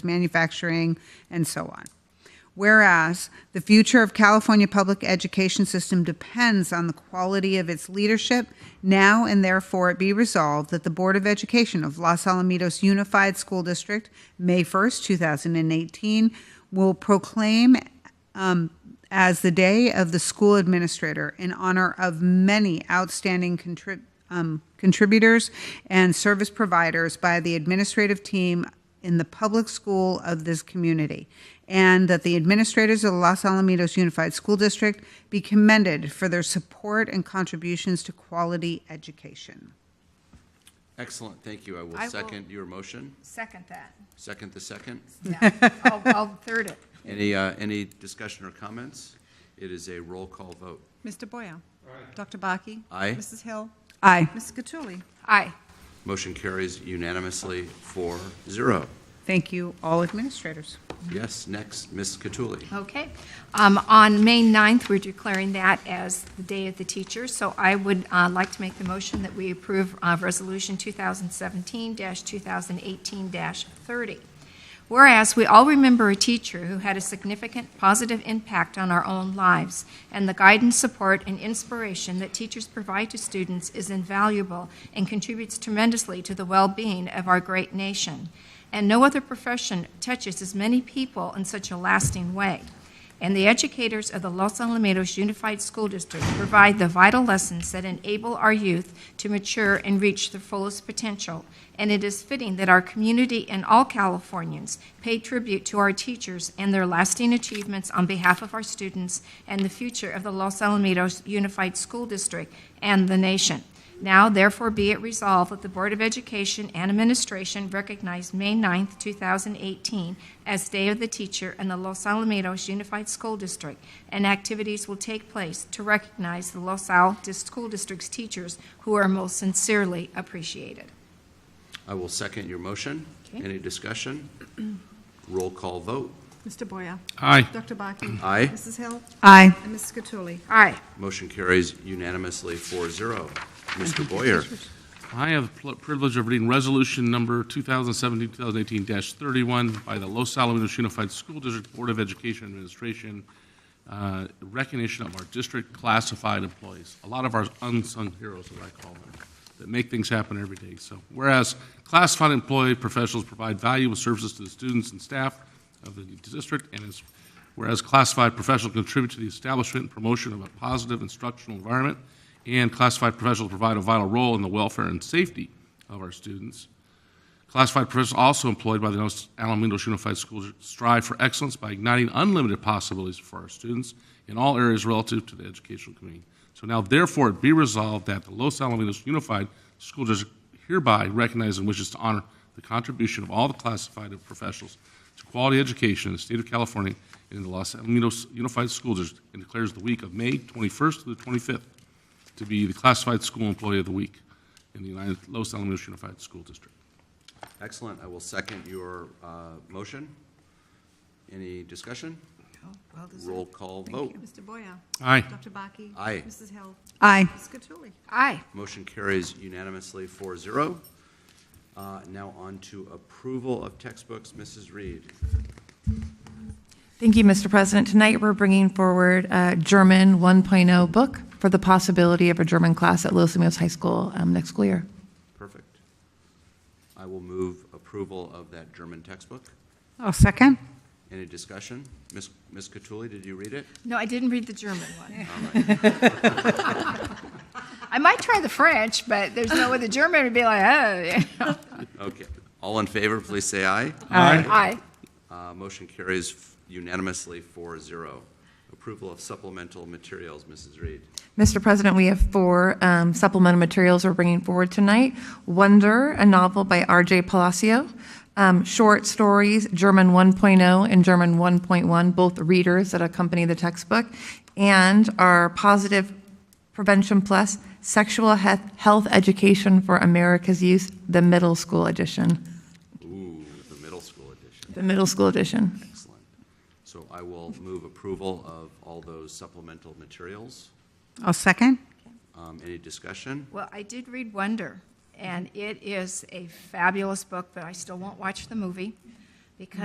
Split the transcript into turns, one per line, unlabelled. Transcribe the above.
manufacturing, and so on. Whereas the future of California public education system depends on the quality of its leadership, now and therefore it be resolved that the Board of Education of Los Alamitos Unified School District, May 1st, 2018, will proclaim um, as the Day of the School Administrator in honor of many outstanding contrib- um, contributors and service providers by the administrative team in the public school of this community, and that the administrators of the Los Alamitos Unified School District be commended for their support and contributions to quality education.
Excellent, thank you. I will
I will-
second your motion.
Second that.
Second the second.
Yeah, I'll, I'll third it.
Any, uh, any discussion or comments? It is a roll call vote.
Mr. Boyer. Dr. Baki.
Aye.
Mrs. Hill.
Aye.
Mrs. Cattouli.
Aye.
Motion carries unanimously four zero.
Thank you, all administrators.
Yes, next, Ms. Cattouli.
Okay. Um, On May 9th, we're declaring that as the Day of the Teacher, so I would uh, like to make the motion that we approve uh, Resolution 2017-2018-30. Whereas we all remember a teacher who had a significant positive impact on our own lives, and the guidance, support, and inspiration that teachers provide to students is invaluable and contributes tremendously to the well-being of our great nation. And no other profession touches as many people in such a lasting way. And the educators of the Los Alamitos Unified School District provide the vital lessons that enable our youth to mature and reach their fullest potential. And it is fitting that our community and all Californians pay tribute to our teachers and their lasting achievements on behalf of our students and the future of the Los Alamitos Unified School District and the nation. Now, therefore, be it resolved that the Board of Education and Administration recognize May 9, 2018, as Day of the Teacher in the Los Alamitos Unified School District, and activities will take place to recognize the Los Al dis- School District's teachers who are most sincerely appreciated.
I will second your motion.
Okay.
Any discussion? Roll call vote.
Mr. Boyer.
Aye.
Dr. Baki.
Aye.
Mrs. Hill.
Aye.
And Mrs. Cattouli.
Aye.
Motion carries unanimously four zero. Mr. Boyer.
I have the pl- privilege of reading Resolution Number 2017-2018-31 by the Los Alamitos Unified School District Board of Education Administration, uh, recognition of our district classified employees, a lot of our unsung heroes, as I call them, that make things happen every day. So whereas classified employee professionals provide valuable services to the students and staff of the district, and is whereas classified professionals contribute to the establishment and promotion of a positive instructional environment, and classified professionals provide a vital role in the welfare and safety of our students. Classified professionals also employed by the Los Alamitos Unified Schools strive for excellence by igniting unlimited possibilities for our students in all areas relative to the educational community. So now therefore it be resolved that the Los Alamitos Unified School District hereby recognizes and wishes to honor the contribution of all the classified professionals to quality education in the state of California and in the Los Alamitos Unified School District and declares the week of May 21st to the 25th to be the classified school employee of the week in the United Los Alamitos Unified School District.
Excellent, I will second your uh, motion. Any discussion?
Oh, Well deserved.
Roll call vote.
Mr. Boyer.
Aye.
Dr. Baki.
Aye.
Mrs. Hill.
Aye.
Mrs. Cattouli.
Aye.
Motion carries unanimously 4-0. zero. Uh, Now on to approval of textbooks, Mrs. Reed.
Thank you, Mr. President. Tonight, we're bringing forward a German 1.0 book for the possibility of a German class at Los Alamitos High School um, next school year.
Perfect. I will move approval of that German textbook.
I'll second.
Any discussion? Ms. Ms. Cattouli, did you read it?
No, I didn't read the German one. I might try the French, but there's no way the German would be like, oh.
Okay. All in favor, please say aye.
Aye.
Uh, Motion carries unanimously 4-0. zero. Approval of supplemental materials, Mrs. Reed.
Mr. President, we have four um, supplemental materials we're bringing forward tonight. Wonder, a novel by R.J. Palacio, um, short stories, German 1.0 and German 1.1, both readers that accompany the textbook, and our Positive Prevention Plus Sexual He- Health Education for America's Youth, the middle school edition.
Ooh, the middle school edition.
The middle school edition.
Excellent. So I will move approval of all those supplemental materials.
I'll second.
Um, Any discussion?
Well, I did read Wonder, and it is a fabulous book, but I still won't watch the movie because